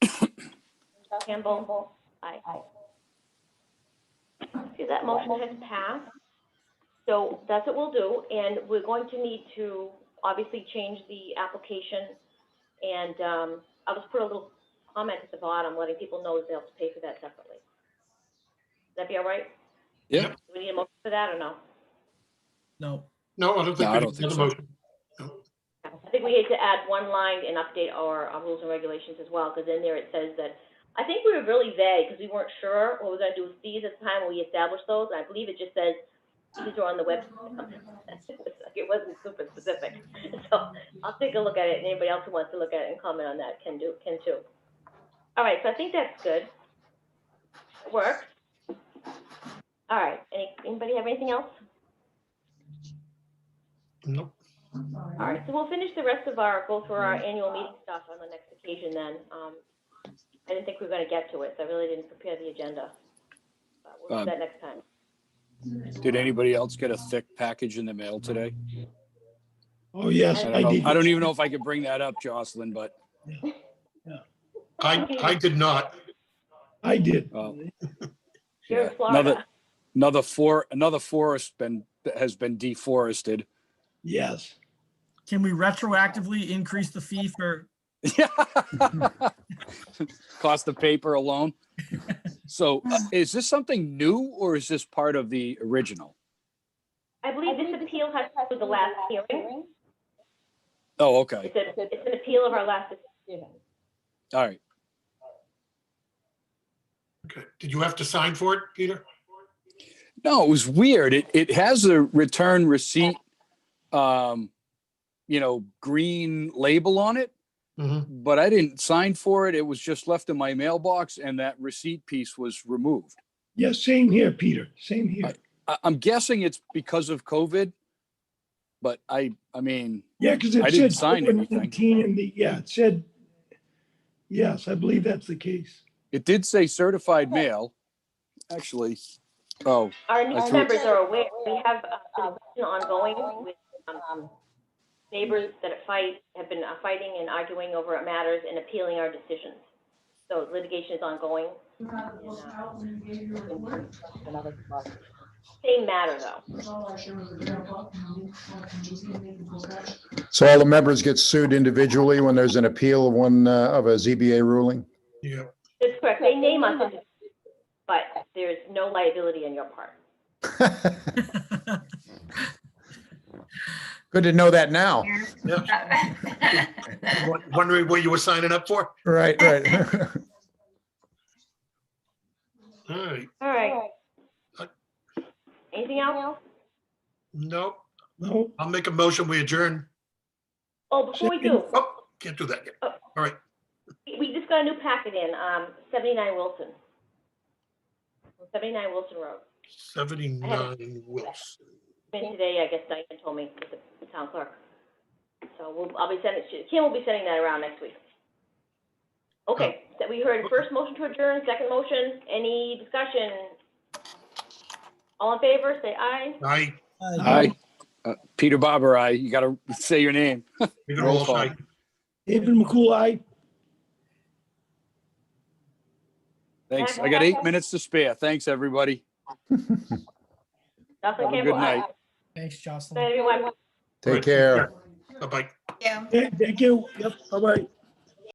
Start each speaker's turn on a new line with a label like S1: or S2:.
S1: Campbell, aye. Okay, that motion has passed. So that's what we'll do, and we're going to need to obviously change the application. And, um, I'll just put a little comment at the bottom, letting people know that they'll have to pay for that separately. That be all right?
S2: Yep.
S1: Do we need a motion for that or no?
S3: No,
S2: No, I don't
S4: No,
S2: think
S4: I
S2: we
S4: don't
S2: need
S4: think
S2: another
S4: so.
S2: motion.
S1: I think we had to add one line and update our, our rules and regulations as well, because in there it says that, I think we were really vague, because we weren't sure what we we're gonna do with fees at the time when we established those, and I believe it just says, these are on the website. It wasn't super specific, so I'll take a look at it, and anybody else who wants to look at it and comment on that can do, can too. All right, so I think that's good. Works. All right, any, anybody have anything else?
S2: Nope.
S1: All right, so we'll finish the rest of our, go through our annual meeting stuff on the next occasion then. Um, I didn't think we were gonna get to it, so I really didn't prepare the agenda. But We'll do
S4: Um,
S1: that next time.
S4: Did anybody else get a thick package in the mail today?
S3: oh, yes,
S4: I
S3: I
S4: don't know. I
S3: did.
S4: don't even know if I could bring that up, Jocelyn, but
S2: I, I did not.
S3: I did.
S4: Oh.
S1: You're
S4: yeah,
S1: in
S4: another,
S1: Florida.
S4: another for, another forest been, has been deforested.
S3: Yes.
S5: Can we retroactively increase the fee for,
S4: Cost of paper alone. So uh, is this something new or is this part of the original?
S1: I believe this appeal has to do with the last hearing.
S4: Oh, okay.
S1: It's a, it's an appeal of our last,
S4: All right.
S2: Okay. Did you have to sign for it, Peter?
S4: No, it was weird. It, it has a return receipt, um, you know, green label on it,
S2: Mm-hmm.
S4: but I didn't sign for it. It was just left in my mailbox and that receipt piece was removed.
S3: Yes, same here, Peter. Same here.
S4: I, I'm guessing it's because of COVID, but I, I mean,
S3: Yeah, because
S4: I
S3: it
S4: didn't
S3: said
S4: sign anything.
S3: COVID-19 in the, yeah, it said, yes, I believe that's the case.
S4: it did say certified mail. Actually, oh,
S1: our
S4: I
S1: new
S4: thought-
S1: members are aware, we have uh, a discussion ongoing with um, neighbors that fight, have been uh, fighting and arguing over matters and appealing our decisions. So litigation is ongoing. and, uh, Same matter though.
S6: So all the members get sued individually when there's an appeal of one, uh, of a ZBA ruling?
S2: Yeah.
S1: That's correct, they name us, as- but there's no liability on your part.
S6: Good to know that now.
S2: Won- Wondering what you were signing up for?
S6: Right, right.
S2: All right.
S1: All right. Anything else?
S2: Nope.
S3: No,
S2: I'll make a motion. We adjourn.
S1: Oh, before we do,
S2: Oh, can't do that yet. All right.
S1: we just got a new packet in, um, seventy-nine Wilson. Seventy-nine Wilson Road.
S2: 79 Wilson.
S1: And today, I guess Diane told me, with the town clerk. So we'll, I'll be sending, she- Kim will be sending that around next week. Okay, that we heard first motion to adjourn, second motion, any discussion? All in favor, say aye.
S2: Aye.
S4: I, uh, Peter Barber, I, you gotta say your name.
S2: Peter
S4: Roll
S2: Walsh,
S4: call.
S2: aye.
S3: David McCool, aye.
S4: Thanks. I got eight minutes to spare. Thanks, everybody.
S1: Dustin
S4: Have a
S1: Campbell,
S4: good
S1: aye.
S4: night.
S5: thanks, Jocelyn.
S1: Everyone.
S6: Take care.
S2: Bye-bye.
S7: Yeah.
S3: Thank thank you. Yep, bye-bye.